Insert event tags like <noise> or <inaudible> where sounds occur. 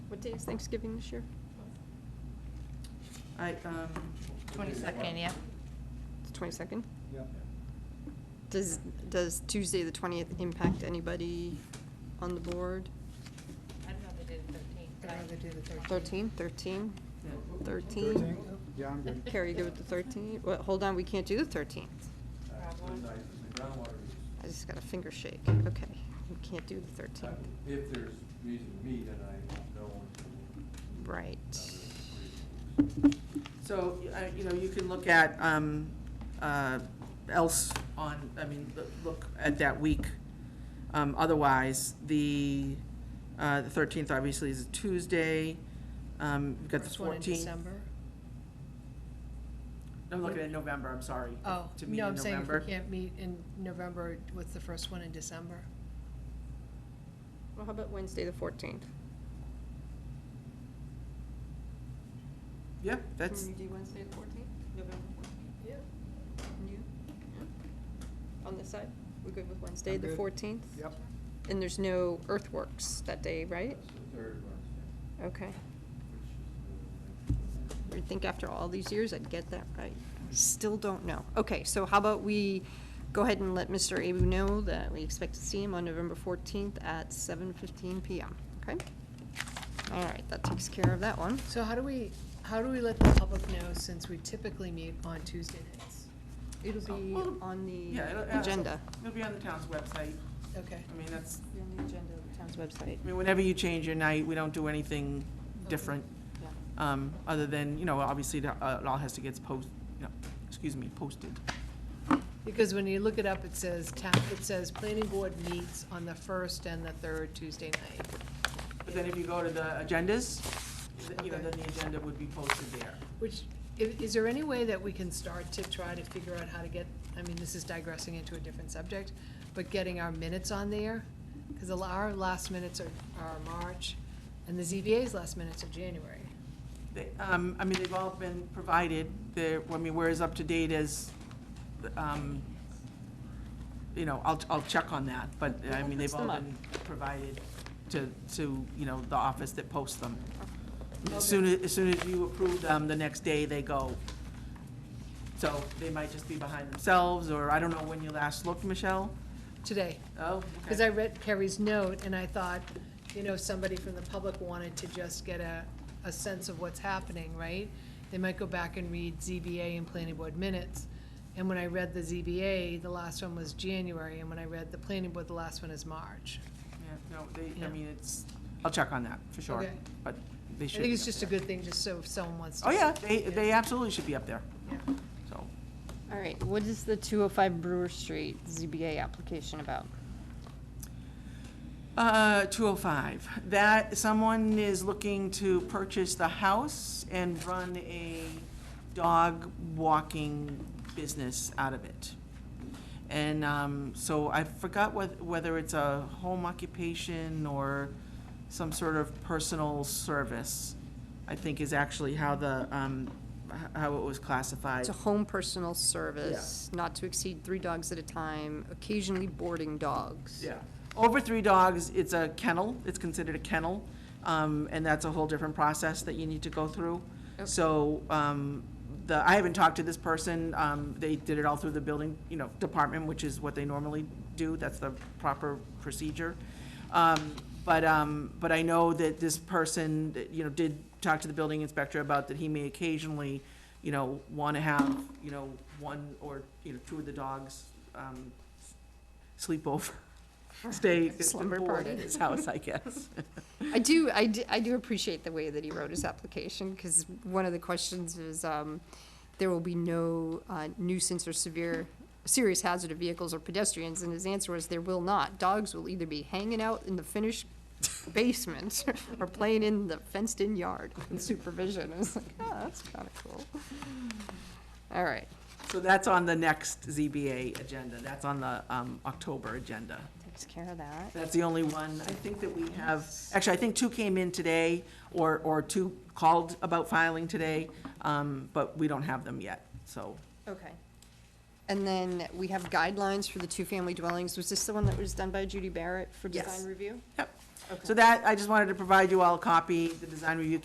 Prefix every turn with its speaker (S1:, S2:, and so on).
S1: What day is Thanksgiving this year?
S2: I, um,
S3: Twenty-second, yeah.
S1: The twenty-second?
S4: Yeah.
S1: Does, does Tuesday, the twentieth impact anybody on the board?
S3: I don't know if they did
S5: I'd rather do the thirteenth.
S1: Thirteen, thirteen,
S2: yeah.
S1: thirteen?
S4: Yeah, I'm good.
S1: Carrie, go with the thirteen? Well, hold on, we can't do the thirteenth. I just got a finger shake. Okay, we can't do the thirteenth.
S6: If there's reason to meet, and I don't know
S1: Right.
S6: until.
S2: So, I- you know, you can look at, um, uh, else on, I mean, loo- look at that week. Um, otherwise, the, uh, the thirteenth obviously is a Tuesday, um, we've got the
S5: First one in
S2: fourteenth.
S5: December.
S2: I'm looking at November, I'm sorry.
S5: Oh,
S2: to meet
S5: no,
S2: in
S5: I'm saying if we
S2: November.
S5: can't meet in November, what's the first one in December?
S1: Well, how about Wednesday, the fourteenth?
S2: Yeah, that's,
S1: do Wednesday, the fourteenth? November fourteenth?
S5: Yeah.
S1: You? On this side? We're good with Wednesday,
S4: I'm
S1: the
S4: good.
S1: fourteenth?
S4: Yep.
S1: And there's no earthworks that day, right?
S6: That's the third Wednesday,
S1: Okay.
S6: which is the.
S1: I think after all these years, I'd get that right. Still don't know. Okay, so how about we go ahead and let Mr. Abu know that we expect to see him on November 14th at 7:15 PM, okay? All right, that takes care of that one.
S5: So how do we, how do we let the public know since we typically meet on Tuesday nights?
S1: It'll be
S2: Well,
S1: on the
S2: yeah, it'll- yeah,
S1: agenda.
S2: it'll be on the town's website,
S5: Okay.
S2: I mean, that's,
S1: on the agenda of the town's website.
S2: I mean, whenever you change your night, we don't do anything different, um, other than, you know, obviously, the- uh, it all has to get post, you know, excuse me, posted.
S5: Because when you look it up, it says town, it says planning board meets on the first and the third Tuesday night.
S2: But then if you go to the agendas, th- you know,
S5: Okay.
S2: then the agenda would be posted there.
S5: Which, i- is there any way that we can start to try to figure out how to get, I mean, this is digressing into a different subject, but getting our minutes on there? Because our last minutes are, are March, and the ZBA's last minutes are January.
S2: They- um, I mean, they've all been provided, they're, I mean, we're as up to date as, um, you know, I'll, I'll check on that, but, I mean, they've all been provided to, to, you know, the office that posts them. As soon as, as soon as you approve them, the next day they go. So they might just be behind themselves, or I don't know when you last looked, Michelle?
S5: Today,
S2: Oh, okay.
S5: because I read Carrie's note, and I thought, you know, somebody from the public wanted to just get a, a sense of what's happening, right? They might go back and read ZBA and planning board minutes, and when I read the ZBA, the last one was January, and when I read the planning board, the last one is March.
S2: Yeah, no, they,
S5: Yeah.
S2: I mean, it's, I'll check on that, for sure,
S5: Okay.
S2: but they
S5: I
S2: should.
S5: think
S2: be
S5: it's
S2: up
S5: just a
S2: there.
S5: good thing, just so if someone wants to.
S2: Oh, yeah,
S5: see.
S2: they, they absolutely should be up there,
S5: Yeah.
S2: so.
S1: All right, what is the 205 Brewer Street ZBA application about?
S2: Uh, two oh five, that, someone is looking to purchase the house and run a dog walking business out of it. And, um, so I forgot wheth- whether it's a home occupation or some sort of personal service, I think is actually how the, um, h- how it was classified.
S1: It's a home personal service, not to exceed three dogs at a time, occasionally boarding dogs.
S2: Yeah. Over three dogs, it's a kennel, it's considered a kennel, um, and that's a whole different process that you need to go through. So, um, the, I haven't talked to this person, um, they did it all through the building, you know, department, which is what they normally do, that's the proper procedure. Um, but, um, but I know that this person, that, you know, did talk to the building inspector about that he may occasionally, you know, wanna have, you know, one or, you know, two of the dogs, um, sleep over, stay,
S1: Slumber
S2: board at
S1: party.
S2: his house, I guess.
S1: I do, I do, I do appreciate the way that he wrote his application, because one of the questions is, um, there will be no uh, nuisance or severe, serious hazard of vehicles or pedestrians, and his answer was, there will not. Dogs will either be hanging out in the finished basement <laughs> or playing in the fenced-in yard <laughs> in supervision. I was like, oh, that's kinda cool. All right,
S2: So that's on the next ZBA agenda, that's on the, um, October agenda.
S1: takes care of that.
S2: That's the only one, I think that we have, actually, I think two came in today, or, or two called about filing today, um, but we don't have them yet, so.
S1: Okay. And then we have guidelines for the two-family dwellings. Was this the one that was done by Judy Barrett for
S2: Yes.
S1: design review?
S2: Yep. So that, I just wanted to provide you all a copy. The design review